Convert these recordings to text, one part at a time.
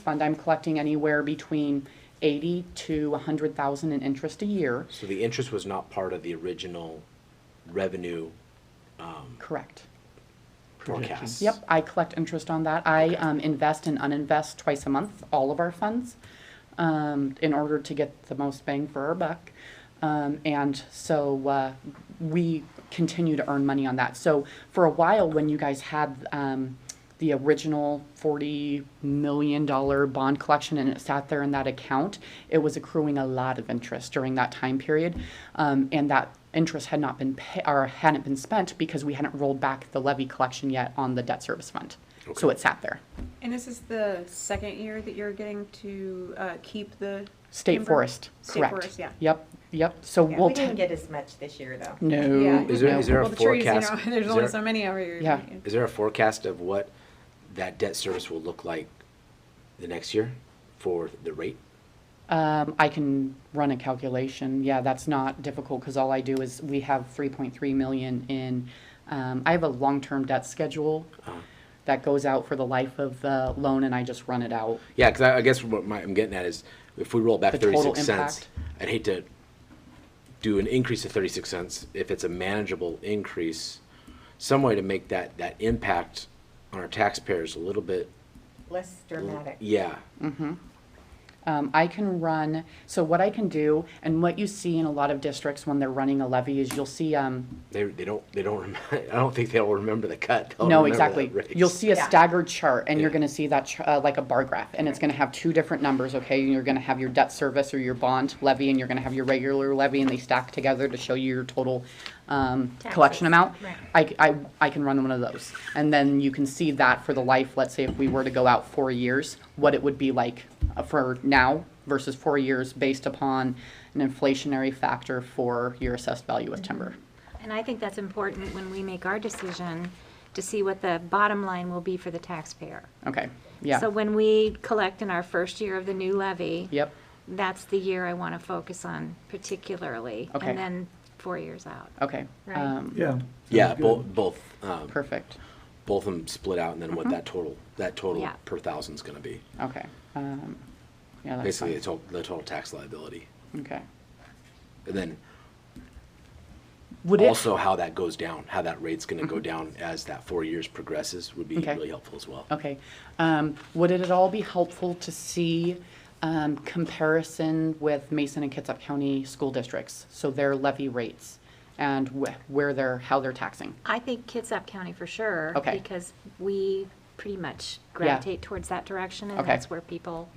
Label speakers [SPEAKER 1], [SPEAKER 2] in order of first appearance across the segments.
[SPEAKER 1] fund, I'm collecting anywhere between eighty to a hundred thousand in interest a year,
[SPEAKER 2] So the interest was not part of the original revenue
[SPEAKER 1] correct?
[SPEAKER 2] forecast?
[SPEAKER 1] Yep, I collect interest on that. I um, invest and uninvest twice a month, all of our funds, um, in order to get the most bang for our buck. Um, And so uh, we continue to earn money on that. So for a while, when you guys had um, the original $40 million bond collection and it sat there in that account, it was accruing a lot of interest during that time period. Um, And that interest had not been pay, or hadn't been spent because we hadn't rolled back the levy collection yet on the debt service fund. So it sat there.
[SPEAKER 3] And this is the second year that you're getting to uh, keep the.
[SPEAKER 1] State
[SPEAKER 3] timber?
[SPEAKER 1] forest,
[SPEAKER 3] State
[SPEAKER 1] correct.
[SPEAKER 3] forest, yeah.
[SPEAKER 1] Yep, yep. So
[SPEAKER 4] Yeah,
[SPEAKER 1] we'll.
[SPEAKER 4] we didn't
[SPEAKER 1] t-
[SPEAKER 4] get as much this year, though.
[SPEAKER 1] No.
[SPEAKER 3] Yeah.
[SPEAKER 2] Is there-
[SPEAKER 1] no.
[SPEAKER 2] is there a
[SPEAKER 3] Well, the trees, you know,
[SPEAKER 2] forecast-
[SPEAKER 3] There's
[SPEAKER 2] is
[SPEAKER 3] only
[SPEAKER 2] there-
[SPEAKER 3] so many every year.
[SPEAKER 1] Yeah.
[SPEAKER 2] Is there a forecast of what that debt service will look like the next year for the rate?
[SPEAKER 1] Um, I can run a calculation. Yeah, that's not difficult because all I do is we have three point three million in. Um, I have a long-term debt schedule that goes out for the life of the loan, and I just run it out.
[SPEAKER 2] Yeah, because I, I guess what my, I'm getting at is if we roll back
[SPEAKER 1] The total
[SPEAKER 2] 36 cents,
[SPEAKER 1] impact.
[SPEAKER 2] I'd hate to do an increase of 36 cents if it's a manageable increase, some way to make that, that impact on our taxpayers a little bit.
[SPEAKER 4] Less dramatic.
[SPEAKER 2] Yeah.
[SPEAKER 1] Mm. Um, I can run, so what I can do, and what you see in a lot of districts when they're running a levy is you'll see, um,
[SPEAKER 2] They, they don't, they don't, rem- I don't think they'll remember the cut. They'll
[SPEAKER 1] Oh, no,
[SPEAKER 2] remember
[SPEAKER 1] exactly.
[SPEAKER 2] that raise.
[SPEAKER 1] You'll see a
[SPEAKER 4] Yeah.
[SPEAKER 1] staggered chart and you're
[SPEAKER 2] Yeah.
[SPEAKER 1] gonna see that, ch- uh, like a bar graph, and it's gonna have two different numbers, okay? You're gonna have your debt service or your bond levy, and you're gonna have your regular levy, and they stack together to show you your total, um, collection
[SPEAKER 4] Taxes,
[SPEAKER 1] amount.
[SPEAKER 4] right.
[SPEAKER 1] I, I, I can run one of those. And then you can see that for the life, let's say if we were to go out four years, what it would be like uh, for now versus four years based upon an inflationary factor for your assessed value of
[SPEAKER 4] Mm-hmm.
[SPEAKER 1] timber.
[SPEAKER 5] And I think that's important when we make our decision to see what the bottom line will be for the taxpayer.
[SPEAKER 1] Okay, yeah.
[SPEAKER 5] So when we collect in our first year of the new levy.
[SPEAKER 1] Yep,
[SPEAKER 5] That's the year I want to focus on particularly.
[SPEAKER 1] Okay.
[SPEAKER 5] And then four years out.
[SPEAKER 1] okay.
[SPEAKER 5] Right.
[SPEAKER 1] um,
[SPEAKER 6] Yeah.
[SPEAKER 2] Yeah, both, both, um,
[SPEAKER 1] Perfect,
[SPEAKER 2] both of them split out and then
[SPEAKER 1] Mm-hmm.
[SPEAKER 2] what that total, that total
[SPEAKER 5] Yeah.
[SPEAKER 2] per thousand's gonna be.
[SPEAKER 1] okay. um, Yeah, that's
[SPEAKER 2] Basically,
[SPEAKER 1] fine,
[SPEAKER 2] the total, the total tax liability.
[SPEAKER 1] okay.
[SPEAKER 2] And then
[SPEAKER 1] Would it, Mm-hmm.
[SPEAKER 2] also how that goes down, how that rate's gonna go down as that four years progresses would be
[SPEAKER 1] Okay.
[SPEAKER 2] really helpful as well.
[SPEAKER 1] okay, um, would it at all be helpful to see um, comparison with Mason and Kitsap County school districts? So their levy rates and wh- where they're, how they're taxing?
[SPEAKER 5] I think Kitsap County for sure.
[SPEAKER 1] Okay.
[SPEAKER 5] Because we pretty much gravitate towards that direction and
[SPEAKER 1] Okay. Mm-hmm.
[SPEAKER 5] that's where people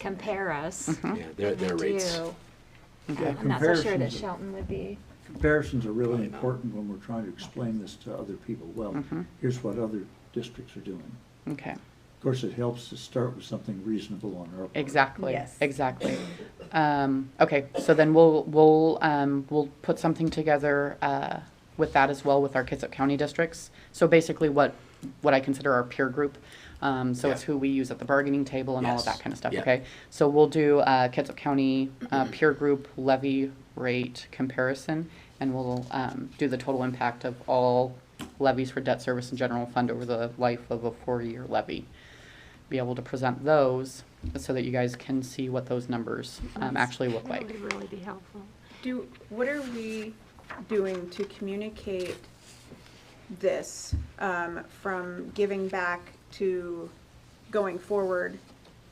[SPEAKER 5] compare us.
[SPEAKER 2] Yeah, their, their
[SPEAKER 5] They
[SPEAKER 2] rates.
[SPEAKER 5] do.
[SPEAKER 6] Yeah,
[SPEAKER 5] I'm not so sure that
[SPEAKER 6] comparisons,
[SPEAKER 5] Shelton would be.
[SPEAKER 6] comparisons are really important when we're trying to explain this to other people. Well, here's what other districts are doing.
[SPEAKER 1] Okay,
[SPEAKER 6] Of course, it helps to start with something reasonable on our part.
[SPEAKER 1] exactly,
[SPEAKER 4] Yes.
[SPEAKER 1] exactly. Um, Okay, so then we'll, we'll, um, we'll put something together uh, with that as well with our Kitsap County districts. So basically what, what I consider our peer group. Um, So it's
[SPEAKER 2] Yeah.
[SPEAKER 1] who we use at the bargaining table and all of
[SPEAKER 2] Yes.
[SPEAKER 1] that kind of stuff,
[SPEAKER 2] Yeah. Mm-hmm.
[SPEAKER 1] okay? So we'll do uh, Kitsap County uh, peer group levy rate comparison, and we'll um, do the total impact of all levies for debt service and general fund over the life of a four-year levy. Be able to present those so that you guys can see what those numbers um, actually look
[SPEAKER 5] That
[SPEAKER 1] like.
[SPEAKER 5] would really be helpful.
[SPEAKER 3] Do, what are we doing to communicate this um, from giving back to going forward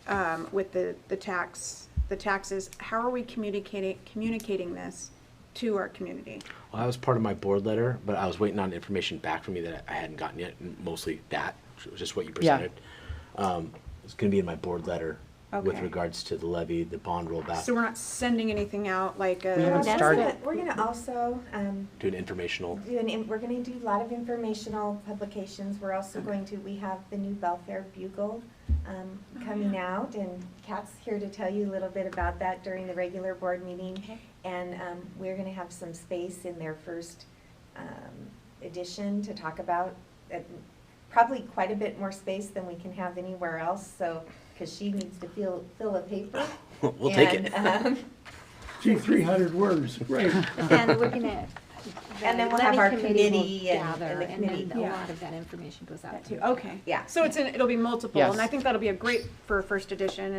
[SPEAKER 3] um, with the, the tax, the taxes? How are we communicating, communicating this to our community?
[SPEAKER 2] Well, that was part of my board letter, but I was waiting on information back from you that I hadn't gotten yet, and mostly that, which was just what you
[SPEAKER 1] Yeah.
[SPEAKER 2] presented. Um, it's gonna be in my board letter with
[SPEAKER 3] Okay.
[SPEAKER 2] regards to the levy, the bond rollback,
[SPEAKER 3] So we're not sending anything out like
[SPEAKER 1] We
[SPEAKER 3] a.
[SPEAKER 1] haven't
[SPEAKER 4] That's
[SPEAKER 1] started.
[SPEAKER 4] what- We're gonna also, um,
[SPEAKER 2] do an informational.
[SPEAKER 4] do an, in- we're gonna do a lot of informational publications. We're also going to, we have the new Belfair Bugle, um,
[SPEAKER 1] Oh,
[SPEAKER 4] coming out, and Kat's here to tell you a little bit about that during the regular board meeting. And, um, we're gonna have some space in their first, um, edition to talk about, uh, probably quite a bit more space than we can have anywhere else, so, cause she needs to fill, fill a paper.
[SPEAKER 2] We'll take
[SPEAKER 4] And,
[SPEAKER 2] it.
[SPEAKER 4] um,
[SPEAKER 6] Gee, three hundred words, right.
[SPEAKER 5] But then looking at
[SPEAKER 4] And then we'll
[SPEAKER 5] the
[SPEAKER 4] have our
[SPEAKER 5] committee will
[SPEAKER 4] committee and-
[SPEAKER 5] gather,
[SPEAKER 4] and the
[SPEAKER 5] And then
[SPEAKER 4] committee.
[SPEAKER 5] a lot of that information goes out.
[SPEAKER 3] That
[SPEAKER 5] to
[SPEAKER 3] too, okay.
[SPEAKER 4] Yeah.
[SPEAKER 3] So it's, in- it'll be multiple,
[SPEAKER 1] Yes.
[SPEAKER 3] and I think that'll be a great for a first edition,